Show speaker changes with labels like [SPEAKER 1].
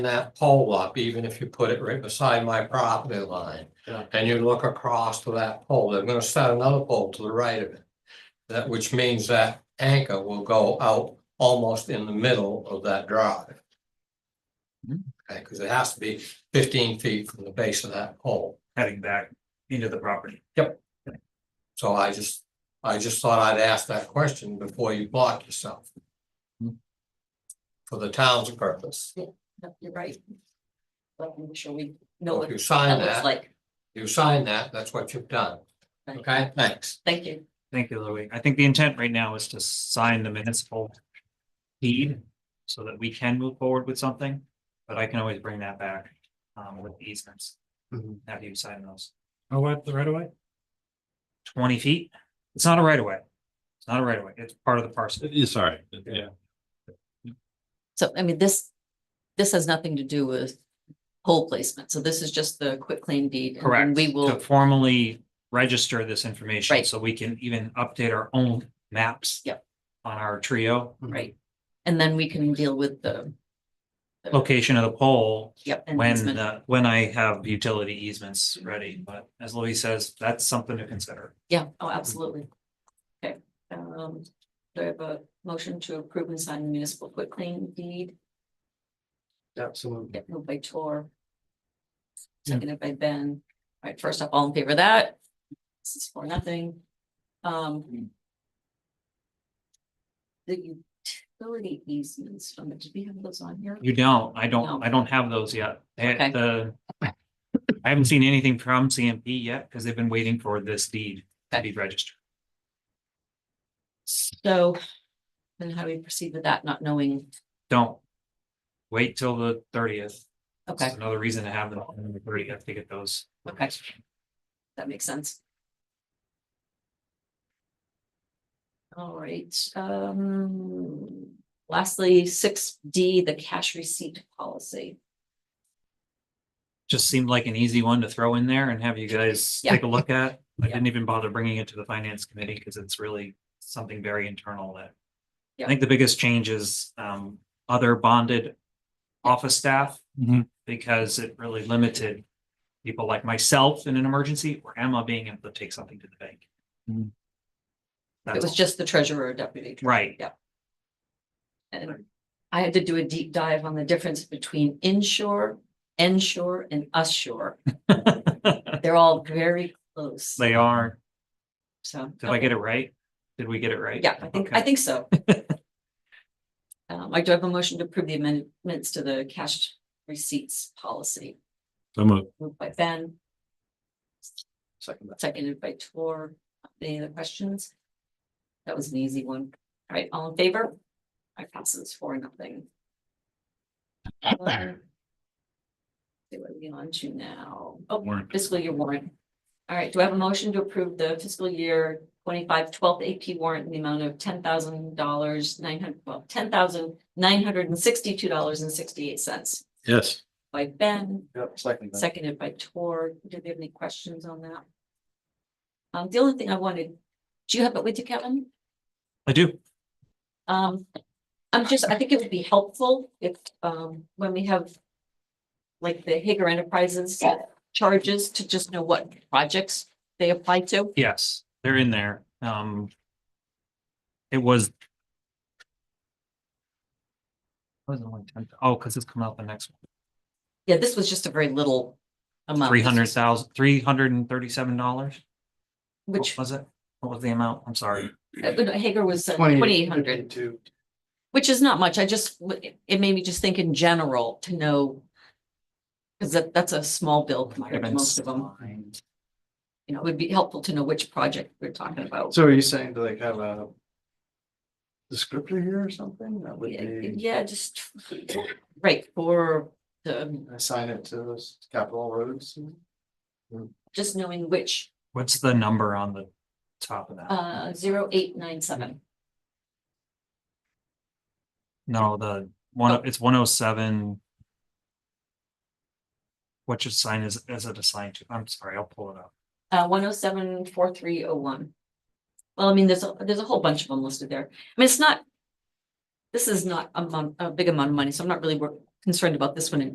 [SPEAKER 1] that pole up, even if you put it right beside my property line.
[SPEAKER 2] Yeah.
[SPEAKER 1] And you look across to that pole, they're gonna set another pole to the right of it. That, which means that anchor will go out almost in the middle of that drive.
[SPEAKER 2] Hmm.
[SPEAKER 1] Okay, cause it has to be fifteen feet from the base of that pole.
[SPEAKER 2] heading back into the property.
[SPEAKER 1] So I just, I just thought I'd ask that question before you block yourself.
[SPEAKER 2] Hmm.
[SPEAKER 1] For the town's purpose.
[SPEAKER 3] Yep, You're right. Like, make sure we
[SPEAKER 1] So
[SPEAKER 3] know
[SPEAKER 1] If
[SPEAKER 3] what
[SPEAKER 1] you
[SPEAKER 3] that
[SPEAKER 1] sign
[SPEAKER 3] looks
[SPEAKER 1] that,
[SPEAKER 3] like.
[SPEAKER 1] you sign that, that's what you've done.
[SPEAKER 3] Right.
[SPEAKER 1] Okay, thanks.
[SPEAKER 3] Thank you.
[SPEAKER 2] Thank you, Louis. I think the intent right now is to sign the municipal deed so that we can move forward with something, but I can always bring that back um with the easements.
[SPEAKER 1] Mhm.
[SPEAKER 2] Have you sign those?
[SPEAKER 4] Oh, Mm-hmm. what, the right away?
[SPEAKER 2] Twenty feet? It's not a right of way. It's not a right of way. It's part of the parcel.
[SPEAKER 4] Yeah, sorry, yeah,
[SPEAKER 3] So, I mean, this, this has nothing to do with pole placement. So this is just the quick claim deed. and then
[SPEAKER 2] Correct.
[SPEAKER 3] We
[SPEAKER 2] To
[SPEAKER 3] will,
[SPEAKER 2] formally register this information
[SPEAKER 3] Right.
[SPEAKER 2] so we can even update our own maps.
[SPEAKER 3] Yep.
[SPEAKER 2] On our trio,
[SPEAKER 3] right. And then we can deal with the,
[SPEAKER 2] location of the pole
[SPEAKER 3] yep. and
[SPEAKER 2] when
[SPEAKER 3] easement.
[SPEAKER 2] the, when I have utility easements ready, but as Louis says, that's something to consider.
[SPEAKER 3] Yeah, oh, absolutely. Okay, um, do I have a motion to approve and sign the municipal quick claim deed?
[SPEAKER 4] absolutely.
[SPEAKER 3] Get moved by Tor.
[SPEAKER 2] Yeah.
[SPEAKER 3] Seconded by Ben. All right, first up, all in favor of that? This is for nothing. Um. The utility easements, um, did we have those on here?
[SPEAKER 2] You don't, I
[SPEAKER 3] No.
[SPEAKER 2] don't, I don't have those yet. I-
[SPEAKER 3] Okay.
[SPEAKER 2] the- I haven't seen anything from CMP yet because they've been waiting for this deed to be registered.
[SPEAKER 3] So. Then how do we proceed with that, not knowing?
[SPEAKER 2] Don't. Wait till the thirtieth.
[SPEAKER 3] Okay,
[SPEAKER 2] Another reason to have them on the thirtieth to get those.
[SPEAKER 3] Okay. that makes sense. All right, um, lastly, six D, the cash receipt policy.
[SPEAKER 2] Just seemed like an easy one to throw in there and have you guys
[SPEAKER 3] Yeah.
[SPEAKER 2] take a look at. I
[SPEAKER 3] Yeah.
[SPEAKER 2] didn't even bother bringing it to the finance committee because it's really something very internal that.
[SPEAKER 3] Yeah.
[SPEAKER 2] I think the biggest change is um other bonded office staff because it really limited people like myself in an emergency or Emma being able to take something to the bank.
[SPEAKER 4] Mhm.
[SPEAKER 3] It
[SPEAKER 2] That's
[SPEAKER 3] was
[SPEAKER 2] all.
[SPEAKER 3] just the treasurer or deputy. treasurer.
[SPEAKER 2] right.
[SPEAKER 3] And I had to do a deep dive on the difference between inshore, ensure, and ushore. They're all very close,
[SPEAKER 2] They are.
[SPEAKER 3] so.
[SPEAKER 2] Did I get it right? Did we get it right?
[SPEAKER 3] Yeah, I think, I
[SPEAKER 2] Okay.
[SPEAKER 3] think so. Um, I do have a motion to approve the amendments to the cash receipts policy,
[SPEAKER 4] I'm a,
[SPEAKER 3] moved by Ben,
[SPEAKER 1] Second.
[SPEAKER 3] seconded by Tor. Any other questions? That was an easy one. All right, all in favor? I pass this for nothing. Um, See what we on to now. Oh,
[SPEAKER 4] warrant.
[SPEAKER 3] fiscal year warrant. All right, do I have a motion to approve the fiscal year 25 12th AP warrant in the amount of ten thousand dollars, nine hundred, well, ten thousand nine hundred and sixty-two dollars and sixty-eight cents
[SPEAKER 4] yes,
[SPEAKER 3] by Ben,
[SPEAKER 1] Yep, second.
[SPEAKER 3] seconded by Tor. Do they have any questions on that? Um, the only thing I wanted, do you have it with you, Kevin?
[SPEAKER 2] I do.
[SPEAKER 3] Um, I'm just, I think it would be helpful if, um, when we have. Like the Hager Enterprises charges to just know what projects they apply to.
[SPEAKER 2] Yes, they're in there. Um. It was. Wasn't only ten, oh, because it's coming out the next
[SPEAKER 3] Yeah, this was just a very little
[SPEAKER 2] one,
[SPEAKER 3] amount.
[SPEAKER 2] three hundred thousand, three hundred and thirty-seven dollars.
[SPEAKER 3] Which,
[SPEAKER 2] Was it? What was the amount? I'm sorry.
[SPEAKER 3] uh, but Hager was twenty-eight hundred, which is not much. I just, w- it made me just think in general to know. Cause that, that's a small bill compared to most of them. You know, it would be helpful to know which project we're talking about.
[SPEAKER 5] So are you saying to like have a descriptor here or something? That would
[SPEAKER 3] Yeah,
[SPEAKER 5] be,
[SPEAKER 3] Yeah, just, right, for the,
[SPEAKER 5] assign it to those capital roads?
[SPEAKER 3] just knowing which,
[SPEAKER 2] What's the number on the top of that?
[SPEAKER 3] uh, zero eight nine seven.
[SPEAKER 2] No, the one, it's one oh seven. What your sign is, is it assigned to? I'm sorry, I'll pull it up.
[SPEAKER 3] Uh, one oh seven four three oh one. Well, I mean, there's, a there's a whole bunch of them listed there. I mean, it's not. This is not a mon- a big amount of money, so I'm not really wor- concerned about this one in